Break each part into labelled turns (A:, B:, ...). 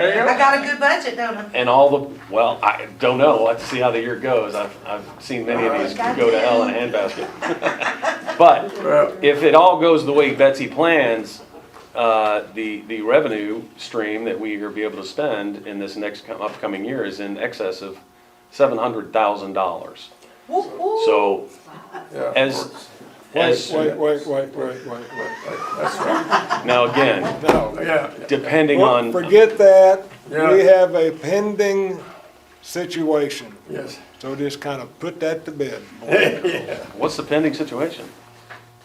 A: you go.
B: I got a good budget, don't I?
C: And all the, well, I don't know, we'll have to see how the year goes, I've, I've seen many of these go to hell in a handbasket. But
A: Well,
C: if it all goes the way Betsy plans, uh, the, the revenue stream that we are be able to spend in this next co- upcoming year is in excess of seven hundred thousand dollars.
B: Woo-hoo.
C: So
A: yeah, of
C: as-
A: course.
C: as,
D: Wait, wait, wait, wait, wait, wait.
A: That's right.
C: now again,
D: No.
A: Yeah.
C: depending
D: Well,
C: on,
D: Forget that.
A: Yeah.
D: We have a pending situation.
A: Yes.
D: So just kind of put that to bed.
C: what's the pending situation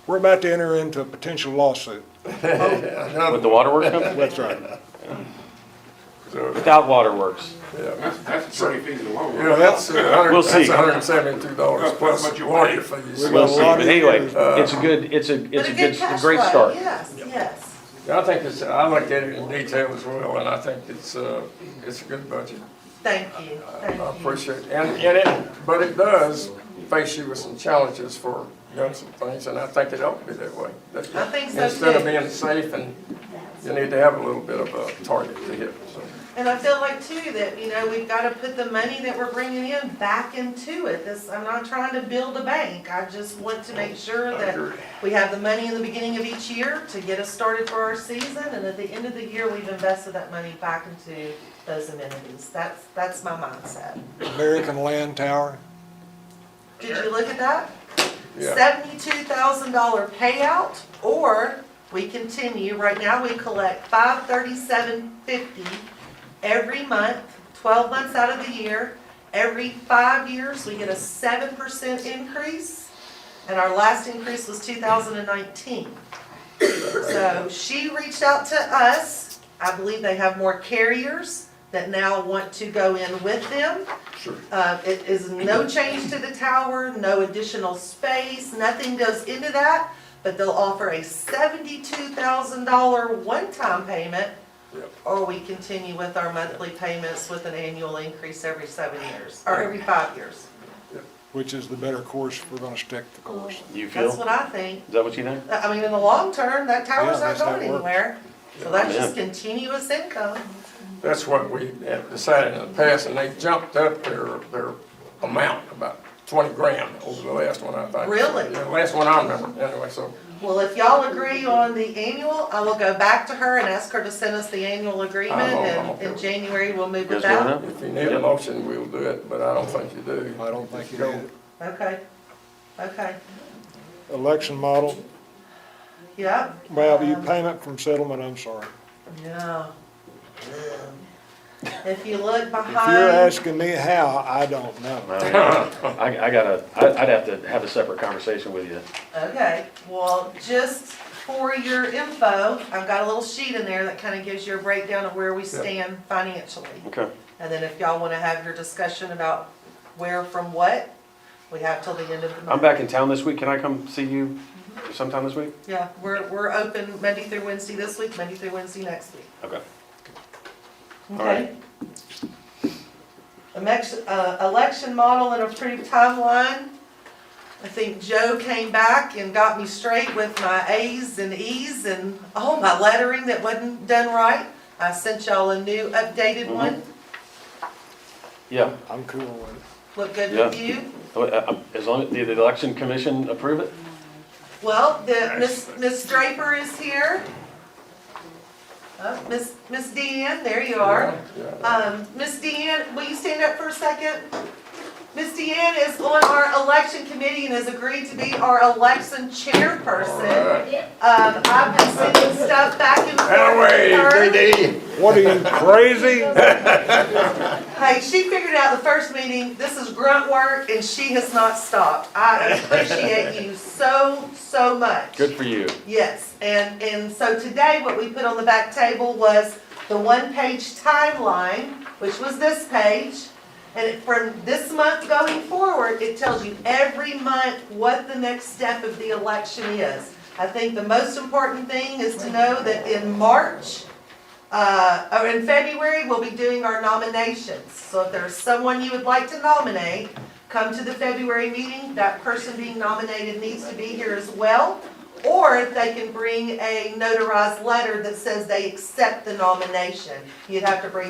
D: We're about to enter into a potential lawsuit.
C: with the waterworks company?
D: That's right.
A: So,
C: Without waterworks,
A: yeah.
E: That's, that's a pretty thing in the long
A: You
E: run.
A: know, that's uh, a hundred,
C: We'll see.
A: that's hundred and seventy-two dollars plus lawyer fees.
C: we'll see, but
D: Water-
C: anyway, it's a good, it's a,
B: Uh. But
C: it's a good, a
B: cash
C: great
B: flow,
C: start.
B: Yes, yes.
A: I think it's, I looked at it in detail as well, and I think it's, uh, it's a good budget.
B: Thank you,
A: I
B: thank you.
A: appreciate, it. and, and it, but it does face you with some challenges for doing some things, and I think it ought to be that way. That-
B: I think so,
A: Instead of
B: too.
A: being safe, and you need to have a little bit of a target to hit, so.
B: And I feel like too, that, you know, we've gotta put the money that we're bringing in back into it, this, I'm not trying to build a bank, I just want to make sure
A: I
B: that
A: agree.
B: we have the money in the beginning of each year to get us started for our season, and at the end of the year, we've invested that money back into those amenities, that's, that's my mindset.
D: American Land Tower.
B: Did you look at that?
A: Yeah.
B: Seventy-two thousand dollar payout, or we continue, right now we collect five thirty-seven fifty every month, twelve months out of the year. Every five years, we get a seven percent increase, and our last increase was two thousand and nineteen. So she reached out to us, I believe they have more carriers that now want to go in with them.
A: Sure.
B: Uh, it is no change to the tower, no additional space, nothing goes into that, but they'll offer a seventy-two thousand dollar one-time payment,
A: Yep.
B: or we continue with our monthly payments with an annual increase every seven years, or every five years.
D: which is the better course, we're gonna stick the course.
C: You feel,
B: That's
C: is
B: what I think.
C: that what you think?
B: I mean, in the long term, that tower's not
D: Yeah, that's how
B: going
D: it works.
B: anywhere, so that's
C: Yeah.
B: just continuous income.
A: That's what we have decided in the past, and they jumped up their, their amount about twenty grand over the last one, I think.
B: Really?
A: The last one I remember, anyway, so,
B: Well, if y'all agree on the annual, I will go back to her and ask her to send us the annual agreement,
A: I'm
B: and
A: okay
B: in
A: with it.
B: January, we'll move
C: You
B: with
C: guys good
B: that.
C: with
A: if you need a motion, we'll do it, but I don't think you do.
D: I don't think you
A: Go.
D: did.
B: Okay, okay,
D: Election model,
B: yeah,
D: well, you payment from settlement, I'm sorry.
B: yeah. If you look
D: If you're
B: behind,
D: asking me how, I don't know.
C: Well, I, I gotta, I- I'd have to have a separate conversation with you.
B: okay, well, just for your info, I've got a little sheet in there that kind of gives you a breakdown of where we stand financially.
C: Okay.
B: And then if y'all want to have your discussion about where from what, we have till the end of the month.
C: I'm back in town this week, can I come see you
B: Mm-hmm.
C: sometime this week?
B: Yeah, we're, we're open Monday through Wednesday this week, Monday through Wednesday next week.
C: Okay. All
B: Okay. Election, uh, election model and approved timeline. I think Joe came back and got me straight with my As and Es and all my lettering that wasn't done right. I sent y'all a new
C: Mm-hmm.
B: updated one.
C: Yeah,
D: I'm cool with it.
B: Look good with
C: Yeah.
B: you.
C: Uh, uh, as long, as did the election commission approve it?
B: Well, the, Miss Miss Draper is here. Oh, Miss, Miss Deanne, there you are.
A: Yeah,
B: Um, Ms. Deanne, will you stand up for a second? Ms. Deanne is on our election committee and has agreed to be our election chairperson.
A: Alright.
B: Um, I've been sending stuff back and forth with her.
A: Anyway, DD.
D: What are you, crazy?
B: Hey, she figured out the first meeting, this is grunt work, and she has not stopped. I appreciate you so, so much.
C: Good for you.
B: Yes, and, and so today, what we put on the back table was the one-page timeline, which was this page. And it- from this month going forward, it tells you every month what the next step of the election is. I think the most important thing is to know that in March, uh, or in February, we'll be doing our nominations. So if there's someone you would like to nominate, come to the February meeting. That person being nominated needs to be here as well. Or if they can bring a notarized letter that says they accept the nomination. You'd have to bring